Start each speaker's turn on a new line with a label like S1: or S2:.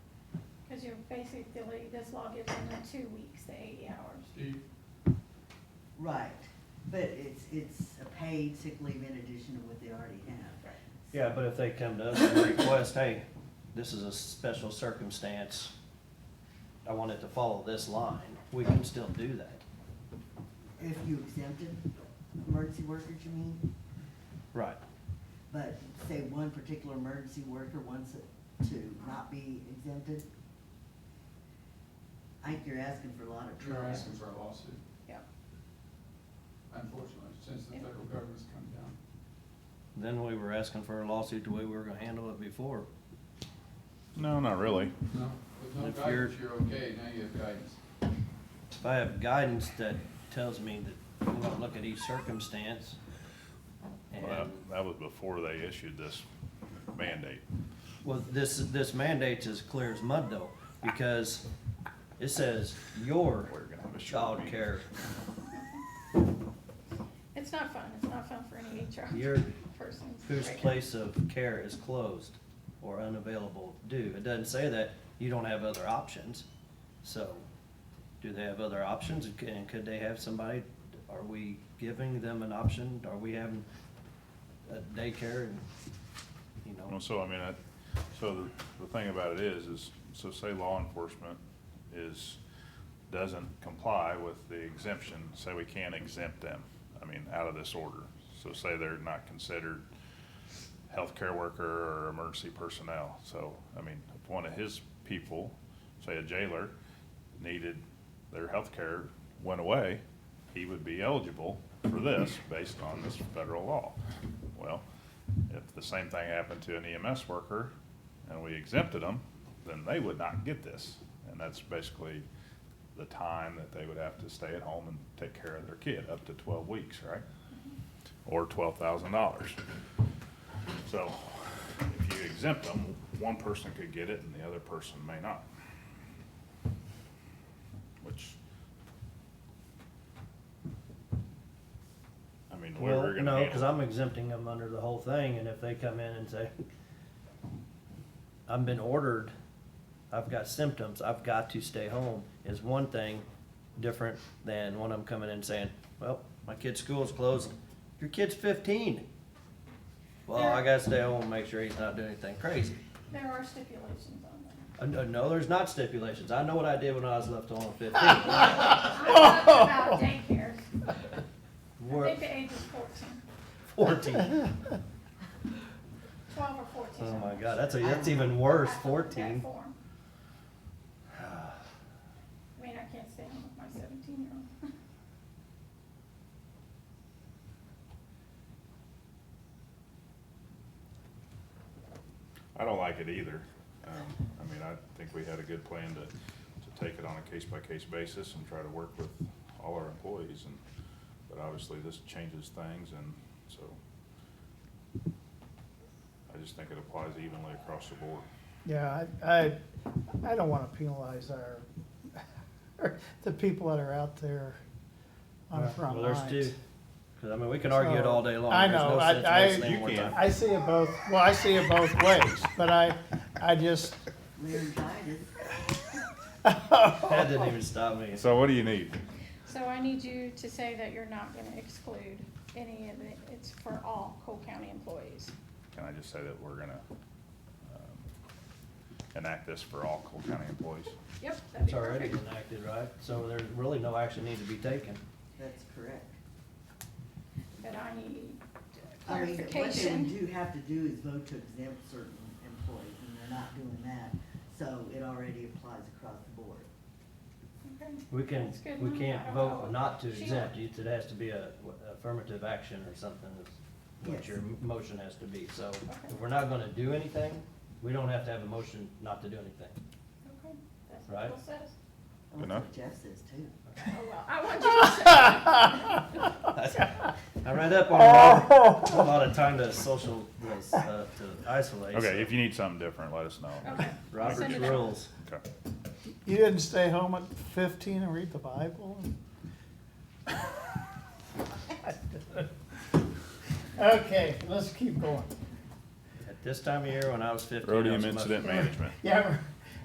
S1: to basically, this law gives them the two weeks, the eighty hours.
S2: Steve,
S3: Right, but it's, it's a paid sick leave in addition to what they already have.
S4: Yeah, but if they come to us and request, hey, this is a special circumstance, I want it to follow this line, we can still do that.
S3: If you exempted emergency workers, you mean?
S4: Right.
S3: But say one particular emergency worker wants it to not be exempted? I think you're asking for a lot of
S2: you're
S3: trouble.
S2: asking for a lawsuit,
S1: Yeah,
S2: unfortunately, since the federal government's come down.
S4: Then we were asking for a lawsuit the way we were gonna handle it before.
S5: No, not really.
S2: No, with no
S4: If you're-
S2: guidance, you're okay, now you have guidance.
S4: If I have guidance that tells me that I'm gonna look at each circumstance
S5: Well, that,
S4: and
S5: that was before they issued this mandate.
S4: Well, this, this mandate's as clear as mud though, because it says your
S5: We're gonna have a short meeting.
S4: childcare,
S1: it's not fun, it's not fun for any
S4: your,
S1: HR person.
S4: whose
S1: Right.
S4: place of care is closed or unavailable due. It doesn't say that you don't have other options, so do they have other options? And could they have somebody, are we giving them an option? Are we having a daycare and, you know?
S5: Well, so, I mean, I, so the, the thing about it is, is, so say law enforcement is, doesn't comply with the exemption, say we can't exempt them, I mean, out of this order. So say they're not considered healthcare worker or emergency personnel, so, I mean, if one of his people, say a jailer, needed their healthcare, went away, he would be eligible for this based on this federal law. Well, if the same thing happened to an EMS worker and we exempted them, then they would not get this. And that's basically the time that they would have to stay at home and take care of their kid, up to twelve weeks, right? Or twelve thousand dollars. So if you exempt them, one person could get it and the other person may not. Which, I mean, the way
S4: Well,
S5: we're gonna
S4: no, because
S5: handle.
S4: I'm exempting them under the whole thing, and if they come in and say, I've been ordered, I've got symptoms, I've got to stay home, is one thing different than when I'm coming in saying, well, my kid's school is closed, your kid's fifteen. Well, I gotta stay home and make sure he's not doing anything crazy.
S1: There are stipulations on that.
S4: Uh, No, no, there's not stipulations, I know what I did when I was left home at fifteen.
S1: I'm talking about daycares, I
S4: We're
S1: think the age is fourteen,
S4: fourteen.
S1: twelve or fourteen.
S4: Oh my god, that's a, that's even worse,
S1: That
S4: fourteen.
S1: form. I mean, I can't stay home with my seventeen-year-old.
S5: I don't like it either. Um, I mean, I think we had a good plan to, to take it on a case-by-case basis and try to work with all our employees and, but obviously this changes things and so I just think it applies evenly across the board.
S6: Yeah, I, I, I don't wanna penalize our, the people that are out there on the front
S4: Well, there's two.
S6: lines.
S4: 'Cause, I mean, we can argue it all day long.
S6: I
S4: There's no
S6: know, I-
S4: sense
S6: I-
S4: wasting
S5: You
S4: more
S5: can.
S4: time.
S6: I see it both, well, I see it both ways, but I, I just,
S3: Laryngitis.
S4: That didn't even stop me.
S5: So what do you need?
S1: So I need you to say that you're not gonna exclude any of it, it's for all Cole County employees.
S5: Can I just say that we're gonna, um, enact this for all Cole County employees?
S1: Yep, that'd
S4: It's
S1: be
S4: already
S1: perfect.
S4: enacted, right? So there's really no action need to be taken.
S3: That's correct.
S1: But I need
S3: I mean, what they would
S1: clarification.
S3: do have to do is vote to exempt certain employees, and they're not doing that, so it already applies across the board.
S1: Okay.
S4: We can,
S1: That's good.
S4: we
S1: No, I
S4: can't
S1: don't know.
S4: vote not to
S1: She-
S4: exempt you. It has to be a what, affirmative action or something is what
S3: Yes.
S4: your m- motion has to be. So if
S1: Okay.
S4: we're not gonna do anything, we don't have to have a motion not to do anything.
S1: Okay, That's
S4: Right.
S1: what Bill says.
S3: And that's
S5: Enough.
S3: what Jeff says too.
S1: Oh, well, I want you to say,
S4: I read up on a lot,
S6: Oh!
S4: of- a lot of time to social, uh, to isolate. so
S5: Okay, if you need something different, let us know.
S1: okay. Send
S4: Robert's
S1: it out.
S4: rules.
S5: Okay.
S6: you didn't stay home at fifteen and read the Bible? Okay, let's keep going.
S4: At this time of year, when I was fifteen, I was
S5: Rhodium
S4: much-
S5: Incident Management.
S6: Yeah,